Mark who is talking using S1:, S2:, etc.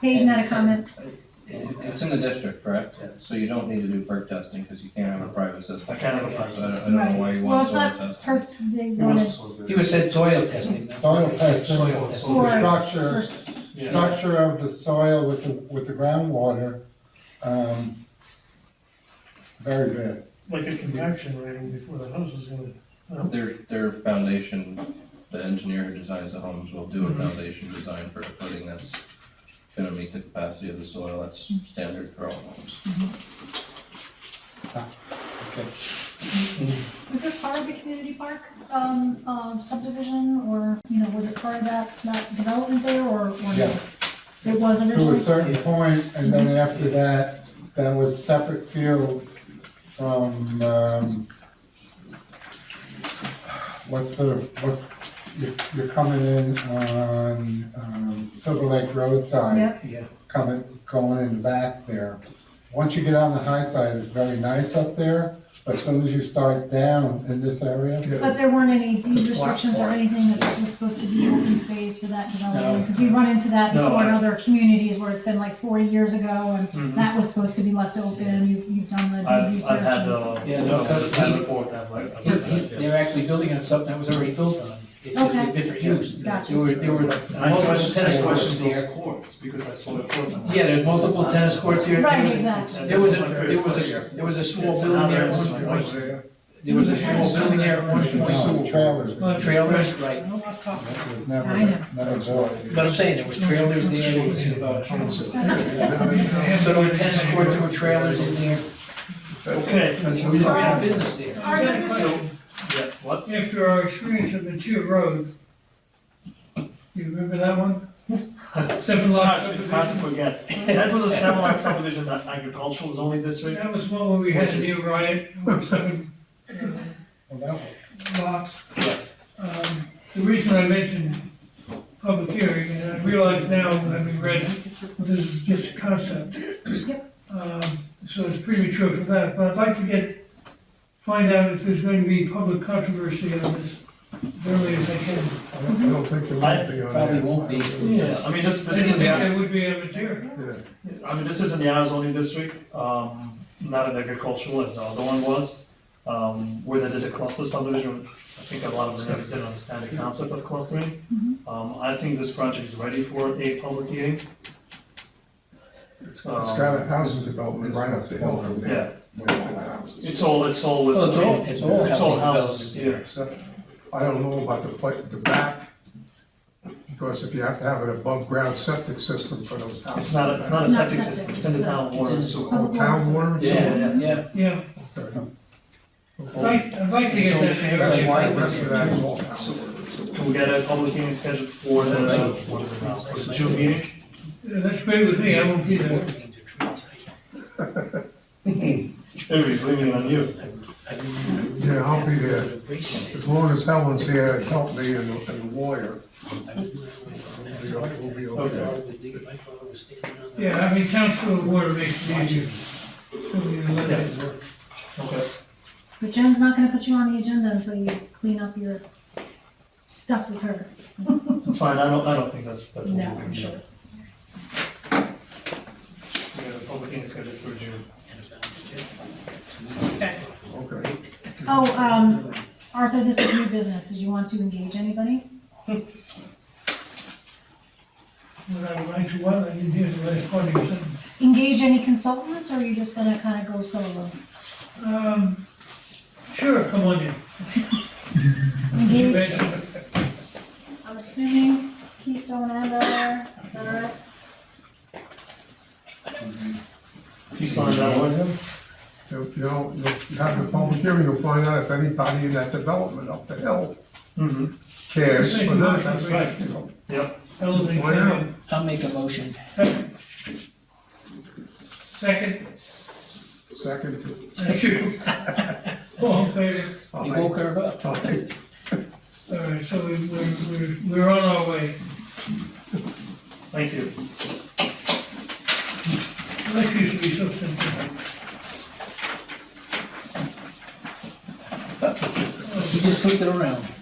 S1: Hayden had a comment.
S2: It- It's in the district, correct?
S3: Yes.
S2: So you don't need to do perk testing because you can't have a private system.
S3: I can't have a private
S2: So I don't- I
S1: Right.
S2: don't know why you
S1: Well,
S2: want
S1: it's
S2: soil
S1: not
S2: testing.
S1: perks, they
S3: He wants
S1: wanted
S3: to solve it.
S4: He was said soil testing. though.
S5: Soil testing.
S4: Soil testing.
S1: For-
S5: Structure,
S3: Yeah.
S5: structure of the soil with the, with the groundwater, um, very bad.
S6: like a compaction rating before the house is gonna,
S2: Their, their foundation, the engineer who designs the homes will do a foundation design for a footing that's gonna meet the capacity of the soil. That's standard for all homes.
S5: Okay.
S1: Was this part of the community park um, um, subdivision, or, you know, was it part of that, that development there, or? or no?
S5: Yes.
S1: It was
S5: To a
S1: originally?
S5: certain point, and then after that, that was separate fields from, um, what's the, what's, you're, you're coming in on, um, Silver Lake roadside.
S1: Yep.
S3: Yeah.
S5: coming, going in the back there. Once you get on the high side, it's very nice up there, but as soon as you start down in this area,
S1: But there weren't any deed
S3: The black
S1: restrictions or
S3: part.
S1: anything that this was supposed to be open space for that development?
S4: No.
S1: Because we run into that
S3: No,
S1: before in
S3: I-
S1: other communities where it's been like forty years ago,
S3: Mhm.
S1: and that was supposed to be left open, you've, you've done the deed
S3: I've,
S1: research.
S3: I've had,
S1: and-
S3: uh,
S4: Yeah, no,
S3: no, the
S4: that's-
S3: town report, I've, I've.
S4: He- he- They were actually building on something that was already built on. It's just a
S1: Okay.
S4: different use.
S1: Gotcha.
S4: There were, there were
S3: And I
S4: multiple
S3: question,
S4: tennis
S3: I
S4: courts
S3: question
S4: there.
S3: those courts, because I saw the courts. and-
S4: Yeah, there's multiple tennis courts here.
S1: Right,
S4: There was a-
S1: exactly.
S4: There was a, there was a, there was a small
S3: It's
S4: building
S3: another
S4: there at
S3: answer.
S4: one point. There was a small building there at one
S5: no,
S4: point.
S5: trailers.
S4: Trailers, right.
S5: It was
S1: I know.
S5: never, never built.
S4: But I'm saying, there was trailers there, there was about, so there were tennis courts, there were trailers in there,
S3: Okay,
S4: because he really ran a business there.
S1: Are there this-
S3: yeah, what?
S7: After our experience at the Chia Road, you remember that one? Seven
S3: It's
S7: lot
S3: hard, it's hard to
S7: subdivision.
S3: forget. That was a seven lot subdivision, that agricultural zoning district.
S7: That was one where we had
S3: Which
S7: to
S3: is-
S7: deal riot, seven
S5: Well, that was-
S7: lots.
S3: Yes.
S7: Um, The reason I mentioned public hearing, and I realize now, having read, this is just a concept. Um, So it's premature for that, but I'd like to get, find out if there's going to be public controversy on this as early as I can.
S8: I don't I don't think there might be on that.
S4: Probably won't be.
S3: Yeah, I mean, this,
S7: I
S3: this
S7: didn't
S3: is
S7: think
S3: the,
S7: that would be a material.
S8: Yeah.
S3: I mean, this is in the Arizona district, um, not an agricultural, as the other one was, um, where they did a cluster subdivision. I think a lot of the neighbors didn't understand the concept of clustering.
S1: Mm-hmm.
S3: Um, I think this project is ready for a public hearing.
S8: It's it's got a housing development right up the hill from
S3: Yeah,
S8: there. Yeah.
S3: it's all, it's all with.
S4: Well, Oh, it's all, it's all.
S3: It's all
S4: housing
S3: houses,
S4: development there.
S3: yeah.
S8: Except, I don't know about the pla the back, because if you have to have an above-ground septic system for those
S3: It's
S8: houses.
S3: not, a- it's not a
S1: It's not
S3: septic system,
S1: septic,
S3: it's in the
S1: it's a-
S3: town water and sewer.
S8: Oh, town water? and sewer?
S4: Yeah, yeah.
S7: Yeah,
S8: Okay.
S7: I'd like, I'd like to get that
S8: That's
S7: answer.
S8: why the rest of that is all town water.
S3: Can we get a public hearing scheduled for the, what is it now, for the June meeting?
S7: That's great with me, I won't be there.
S3: Everybody's leaving on you.
S8: Yeah, I'll be there. As long as Helen's here and help me and and the lawyer, we'll be- we'll be okay.
S7: Yeah, I mean, council water makes it easier. So we let it-
S3: Okay.
S1: But Jen's not gonna put you on the agenda until you clean up your stuff with her.
S3: It's fine, I don't, I don't think that's, that's. what
S1: No,
S3: we're
S1: I'm sure.
S3: doing. We got a public hearing scheduled for June.
S8: Okay.
S1: Oh, um, Arthur, this is new business. Did you want to engage anybody?
S7: When I went to one, I didn't hear the last part of your sentence.
S1: Engage any consultants, or are you just gonna kinda go solo?
S7: Um, sure, come on in.
S1: Engage, I'm assuming Keystone and Delaware, is that right?
S3: If you sign that one,
S8: You you know, you'll have the public hearing, you'll find out if anybody in that development up the hill
S3: mm-hmm,
S8: cares for that.
S7: That's right.
S8: You know,
S3: yep.
S7: Fellas, they
S8: Why
S7: came
S8: not?
S7: in.
S4: I'll make a motion.
S7: Second,
S8: Second to.
S7: thank you. All in favor?
S4: You woke her up.
S8: Aye.
S7: All right, so we- we're, we're, we're on our way.
S3: Thank you.
S7: Life used to be so simple.
S4: You just flipped it around.